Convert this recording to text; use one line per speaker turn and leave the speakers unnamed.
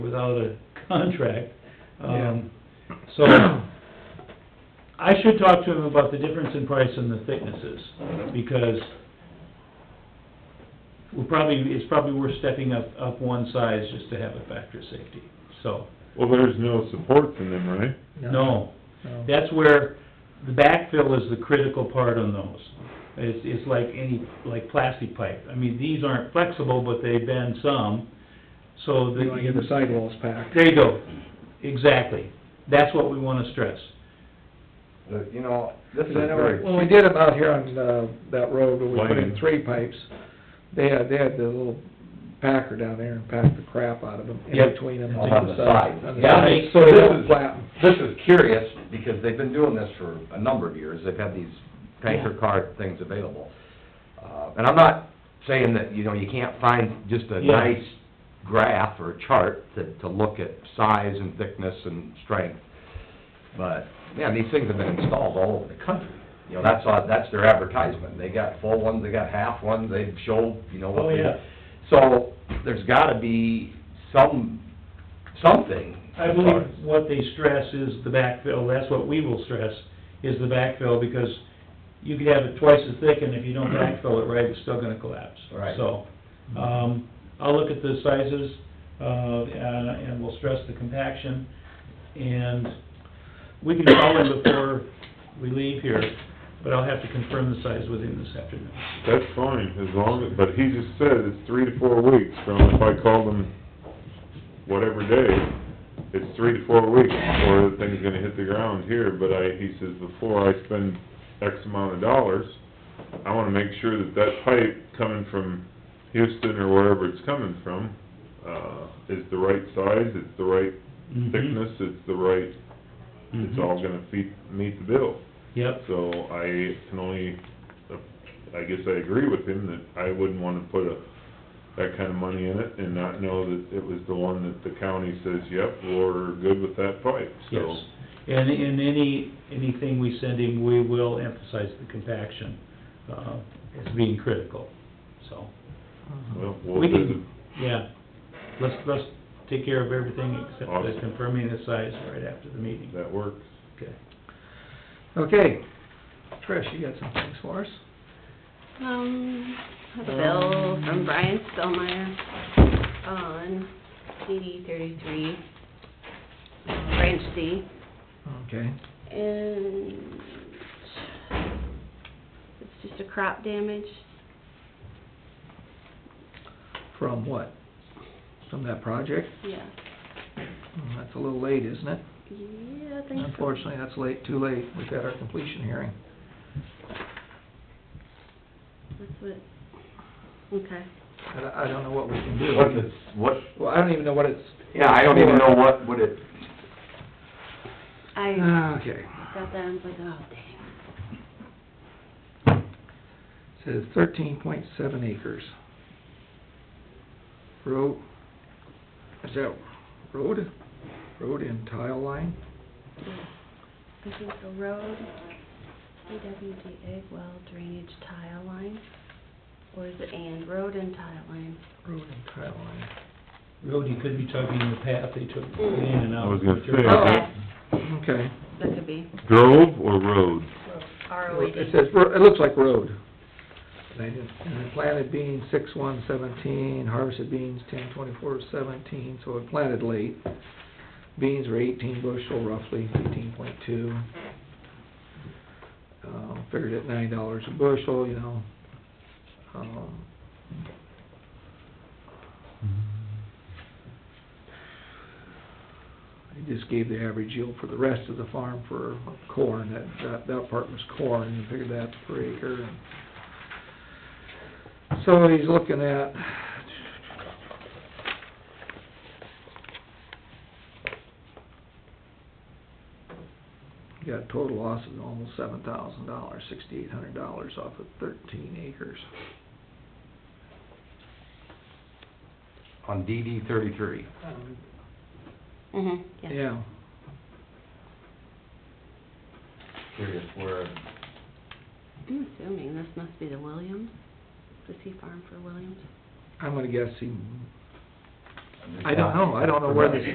without a contract. Um, So,
Yeah.
I should talk to him about the difference in price and the thicknesses, because we're probably, it's probably worth stepping up, up one size just to have a factor of safety, so,
Well, there's no supports in them, right?
no.
no.
That's where the backfill is the critical part on those. It's, it's like any, like plastic pipe. I mean, these aren't flexible, but they bend some, so the...
You wanna get the sidewalls packed.
There you go, exactly. That's what we wanna stress.
The- You know, this is
Because I know,
very...
when we did them out here on, uh, that road, where we put in
Lane.
three pipes, they had, they had the little packer down there and packed the crap out of them, in
Yep.
between them. uh,
On the sides.
On the
Yeah,
sides,
I-
So they
this
don't
is-
flatten.
This is curious, because they've been doing this for a number of years, they've had these tanker car things available. Uh, and I'm not saying that, you know, you can't find just a
Yeah.
nice graph or chart to, to look at size and thickness and strength, but, yeah, these things have been installed all over the country. You know, that's, all- that's their advertisement, they got full ones, they got half ones, they show, you know, what
Oh,
they...
yeah.
So, there's gotta be some, something.
I
as far
believe
as-
what they stress is the backfill, that's what we will stress, is the backfill, because you could have it twice as thick, and if you don't backfill it right, it's still gonna collapse.
Right.
So, um, I'll look at the sizes, uh, uh, and we'll stress the compaction, and we can call him before we leave here, but I'll have to confirm the size with him this afternoon.
That's fine, as long as, but he just said it's three to four weeks from if I call them whatever day, it's three to four weeks before the thing's gonna hit the ground here, but I, he says, before I spend X amount of dollars, I wanna make sure that that pipe coming from Houston or wherever it's coming from, uh, is the right size, it's the right
Mhm.
thickness, it's the right,
Mm-hmm.
it's
Mm-hmm.
all gonna feed, meet the bill.
Yep,
So I can only, I guess I agree with him that I wouldn't wanna put a, that kind of money in it and not know that it was the one that the county says, yep, we're good with that pipe, so.
yes. And in any, anything we send him, we will emphasize the compaction, uh, as being critical, so.
Uh-huh.
Well,
We
we'll
can-
visit,
Yeah, let's, let's take care of everything except the
Awesome.
confirming the size right after the meeting.
that works.
Okay.
Okay, Trish, you got some things for us?
Um, a bill from Brian Spellmeyer on CD thirty-three, branch C,
Okay.
and it's just a crop damage.
From what? From that project?
Yeah,
Mm, That's a little late, isn't it?
yeah, I think so.
Unfortunately, that's late, too late. We've got our completion hearing.
That's what, okay.
I, don't- I don't know what we can do.
What's it, what,
Well, I don't even know what it's,
yeah, I don't even know what, what it,
I
Ah, okay.
got that, and was like, oh, dang.
Says thirteen point seven acres. Road, is that road? Road and tile line?
I think the road, DWD egg well drainage tile line, or is it and road and tile line?
Road and tile line.
Road, you could be talking the path they took in and out.
I was gonna say,
Oh.
that
Okay.
That could be
grove or road?
R O E D.
It says, ro- it looks like road. And I didn't, and I planted beans six one seventeen, harvested beans ten twenty-four seventeen, so it planted late. Beans were eighteen bushel roughly, eighteen point two. Uh, figured at nine dollars a bushel, you know. Um, I just gave the average yield for the rest of the farm for corn, that, that, that part was corn, you figured that per acre. So he's looking at got total loss of almost seven thousand dollars, sixty-eight hundred dollars off of thirteen acres.
on DD thirty-three.
Mm-hmm, yeah.
Yeah,
Curious where,
I'm assuming this must be the Williams, the sea farm for Williams.
I'm gonna guess he I don't know, I don't know where this